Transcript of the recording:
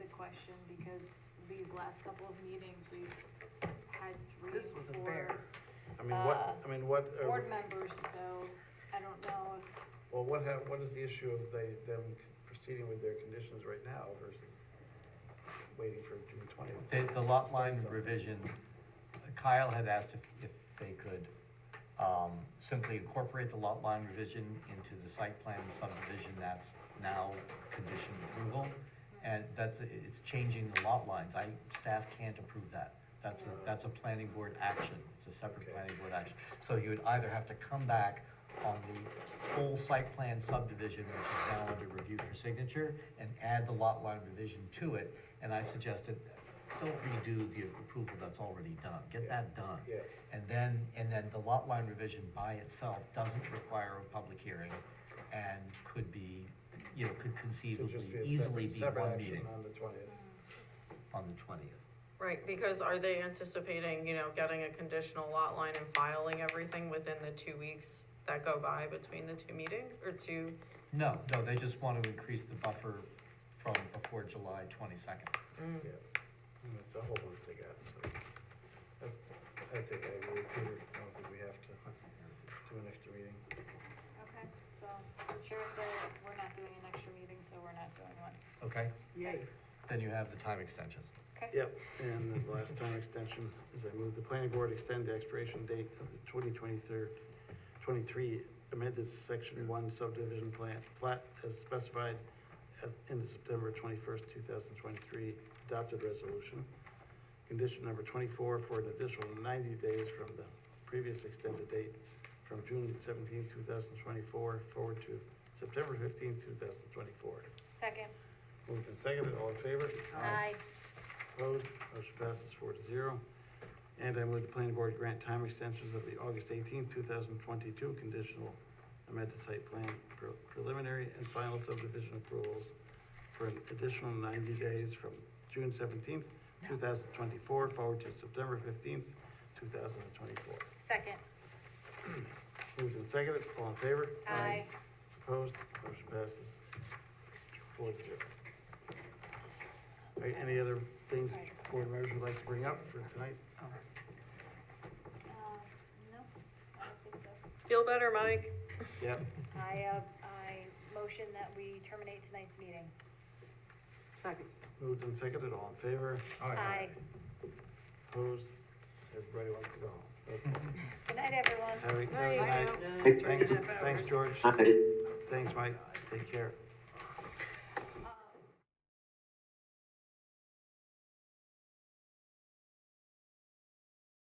question because these last couple of meetings, we've had three, This was a four bear. I mean, what, I mean, what, uh, board members, so I don't know if well, what ha what is the issue of they, them proceeding with their conditions right now versus waiting for June twentieth? The, the lot line revision, Kyle had asked if, if they could, um, simply incorporate the lot line revision into the site plan subdivision that's now condition approval. And that's, it's changing the lot lines, I, staff can't approve that, that's a, that's a planning board action, it's a separate Okay. planning board action. So you would either have to come back on the full site plan subdivision, which is now under review for signature, and add the lot line revision to it, and I suggested, don't redo the approval that's already done, get that done. Yeah. And then, and then the lot line revision by itself doesn't require a public hearing, and could be, you know, could It'd conceivably just be a easily separate, be separate one action meeting on the twentieth. on the twentieth. Right, because are they anticipating, you know, getting a conditional lot line and filing everything within the two weeks that go by between the two meetings, or two? No, no, they just want to increase the buffer from before July twenty-second. Yeah, And that's a whole bunch they got, so. I- I think I agree, with Peter, I don't think we have to do an extra meeting. Okay, so the chair said we're not doing an extra meeting, so we're not doing one. Okay, Yay. then you have the time extensions. Okay? Yep, and the last time extension is I move the planning board extend the expiration date of the twenty twenty-third, twenty-three amended section one subdivision plan, plat as specified at, in the September twenty-first, two thousand twenty-three adopted resolution. Condition number twenty-four for an additional ninety days from the previous extended date from June seventeenth, two thousand twenty-four forward to September fifteenth, two thousand twenty-four. Second? Moved and seconded, all in favor? Opposed, motion passes four to zero. And I move the planning board grant time extensions of the August eighteenth, two thousand twenty-two conditional amended site plan pre- preliminary and final subdivision approvals for an additional ninety days from June seventeenth, two thousand twenty-four, forward to September fifteenth, two thousand twenty-four. Second? Moved and seconded, all in favor? Aye. Opposed, motion passes four to zero. All right, any other things board members would like to bring up for tonight? Uh, no, I don't think so. Feel better, Mike? Yep, I, uh, I motion that we terminate tonight's meeting. Second. moved and seconded, all in favor, opposed, everybody wants to go home. Good night, everyone. Have a- have a Night. good night. Now, Thanks, turn it over. thanks, George, Aye. thanks, Mike, take care.